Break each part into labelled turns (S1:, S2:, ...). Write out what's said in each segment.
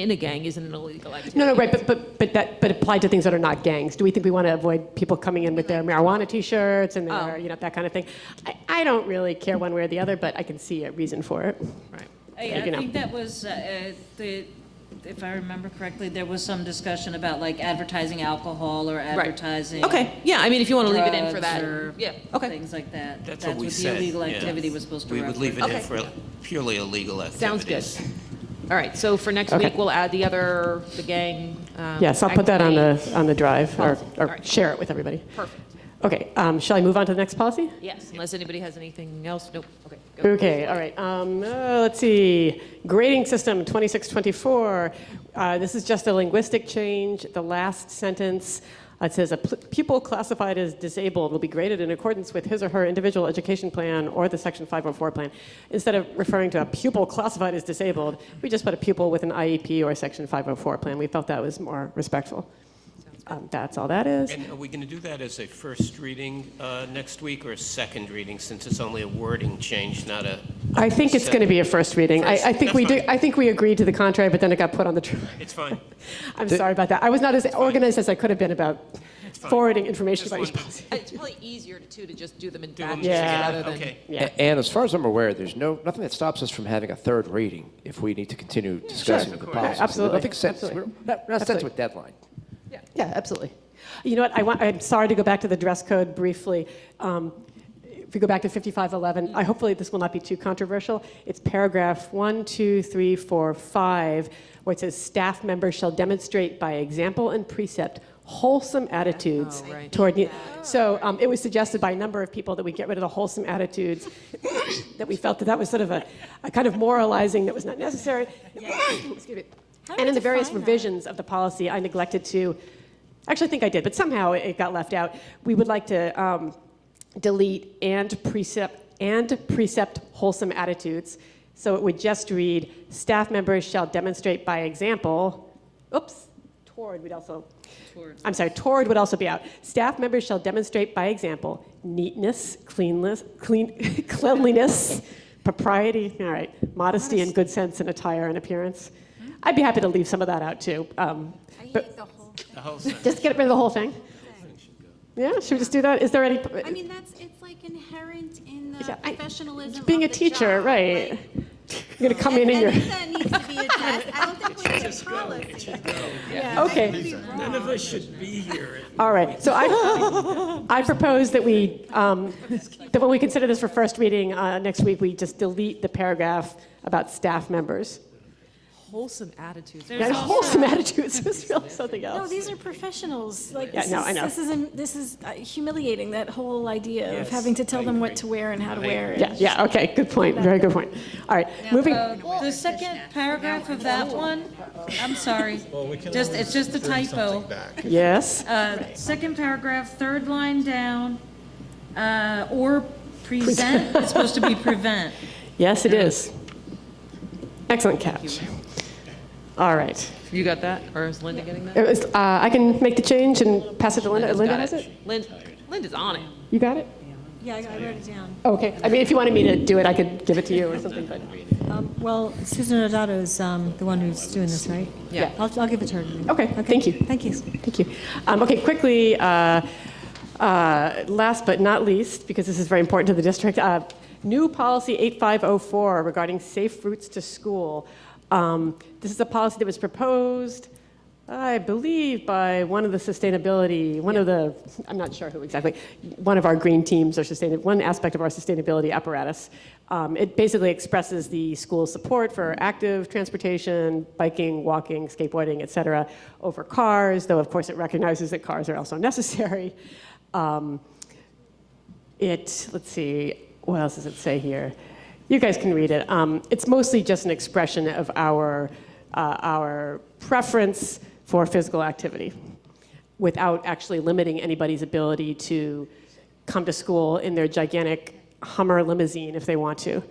S1: in a gang isn't an illegal activity.
S2: No, no, right, but, but, but that, but applied to things that are not gangs. Do we think we want to avoid people coming in with their marijuana T-shirts and their,
S1: Mm-hmm. Oh.
S2: you know, that kind of thing? I, I don't really care one way or the other, but I can see a reason for it.
S1: Right.
S3: I
S2: you
S3: I
S2: know.
S3: think that was, uh, uh, the, if I remember correctly, there was some discussion about like advertising alcohol or advertising.
S1: Okay, yeah, I mean, if you want to leave it in for
S3: drugs
S1: that,
S3: or
S1: yeah, okay.
S3: Things like that.
S4: That's what we
S3: the
S4: said.
S3: illegal
S4: yeah.
S3: activity was supposed to
S4: We
S3: reference.
S4: would leave it in
S1: Okay.
S4: for purely illegal
S1: Sounds
S4: activities.
S1: good. All right, so for next
S2: Okay.
S1: week, we'll add the other, the gang. um,
S2: Yes, I'll put that on the,
S1: activity.
S2: on the drive or,
S1: Policy. All
S2: or
S1: right.
S2: share it with everybody.
S1: Perfect,
S2: Okay, um, shall I move on to the next policy?
S1: yes, unless anybody has anything else, nope, okay. go.
S2: Okay, all right. Um, uh, let's see. Grading system 2624. Uh, this is just a linguistic change. The last sentence uh, it says a pl- pupil classified as disabled will be graded in accordance with his or her individual education plan or the Section 504 plan. Instead of referring to a pupil classified as disabled, we just put a pupil with an IEP or a Section 504 plan. We felt that was more respectful. Um, that's all that is.
S4: And are we going to do that as a first reading uh, next week or a second reading, since it's only a wording change, not a,
S2: I think it's going to be a first reading. I, I think
S4: That's
S2: we do.
S4: fine.
S2: I think we agreed to the contrary, but then it got put on the. Tr-
S4: it's fine.
S2: I'm sorry about that. I was not as organized as I could have been about
S4: fine.
S2: forwarding information
S4: Just
S2: about each
S4: wanted-
S2: policy.
S1: It's probably easier to, too, to just do them in
S4: Do them
S1: batches rather
S4: together,
S1: than.
S4: Okay.
S2: Yeah.
S5: A- And as far as I'm aware, there's no, nothing that stops us from having a third reading if we need to continue discussing the policy.
S2: Absolutely,
S5: Nothing sets,
S2: absolutely.
S5: we're not not set to a deadline.
S2: Yeah, absolutely. You know what, I want, I'm sorry to go back to the dress code briefly. Um, If we go back to 5511, I, hopefully this will not be too controversial. It's paragraph one, two, three, four, five, where it says, "Staff members shall demonstrate by example and precept wholesome attitudes
S1: Oh, right.
S2: toward..." ne-" So um, it was suggested by a number of people that we get rid of the wholesome attitudes, that we felt that that was sort of a, a kind of moralizing that was not necessary. Excuse me. And in the various revisions of the policy, I neglected to, actually, I think I did, but somehow it got left out. We would like to um, delete and precept, and precept wholesome attitudes. So it would just read, staff members shall demonstrate by example, oops, toward would also, I'm sorry, toward would also be out. Staff members shall demonstrate by example neatness, cleanliness, clean, cleanliness, propriety, all right, modesty and good sense in attire and appearance. I'd be happy to leave some of that out too. Um,
S6: I
S2: but
S6: hate the whole thing.
S4: The whole thing.
S2: just get rid of the whole thing. Yeah, should we just do that? Is there any?
S6: I mean, that's, it's like inherent in the
S2: Yeah, I-
S6: professionalism
S2: being a
S6: of the
S2: teacher,
S6: job,
S2: right?
S6: like-
S2: You're gonna come in
S6: I
S2: and you're.
S6: think that needs to be addressed. I don't think we're in policy. Yeah, I
S2: Okay.
S6: could be wrong.
S4: None of us should be here.
S2: All right, so I, I propose that we, um, that when we consider this for first reading uh, next week, we just delete the paragraph about staff members.
S1: Wholesome attitudes.
S3: There's
S2: That
S3: also-
S2: wholesome attitudes was really something
S7: No,
S2: else.
S7: these are professionals. Like,
S2: Yeah,
S7: this
S2: no,
S7: is,
S2: I know.
S7: This is, um, this is uh, humiliating, that whole idea of having to tell them what to wear and how to wear. it.
S2: Yeah, yeah, okay, good point, very good point. All right, moving,
S3: Uh, The second paragraph of that one, I'm sorry, just, it's just a typo.
S2: yes,
S3: Uh, Second paragraph, third line down, uh, or present, it's supposed to be prevent.
S2: yes, it is. Excellent catch. All right,
S1: You got that, or is Linda getting that?
S2: It was- uh, I can make the change and pass it to Linda, Linda
S1: Got
S2: has it?
S1: Lin- Linda's on it.
S2: You got it?
S7: Yeah, I I wrote it down.
S2: Okay, I mean, if you wanted me to do it, I could give it to you or something, but,
S8: Um, Well, Susan Odato's um, the one who's doing this, right?
S1: Yeah.
S8: I'll I'll give it to her.
S2: okay, thank you.
S8: Thank you.
S2: Thank you. Um, Okay, quickly, uh, uh, last but not least, because this is very important to the district, uh, new policy 8504 regarding safe routes to school. Um, This is a policy that was proposed, I believe, by one of the sustainability, one of the, I'm not sure who exactly, one of our green teams or sustainable, one aspect of our sustainability apparatus. Um, It basically expresses the school's support for active transportation, biking, walking, skateboarding, et cetera, over cars, though of course it recognizes that cars are also necessary. Um, it, let's see, what else does it say here? You guys can read it. Um, it's mostly just an expression of our, uh, our preference for physical activity without actually limiting anybody's ability to come to school in their gigantic Hummer limousine if they want to.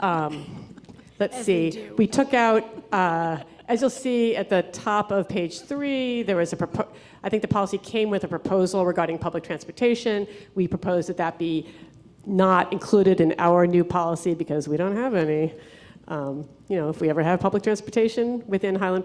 S2: Um, Let's see, we took out, uh, as you'll see at the top of page three, there was a, propo- I think the policy came with a proposal regarding public transportation. We proposed that that be not included in our new policy because we don't have any. Um, You know, if we ever have public transportation within Highland Park.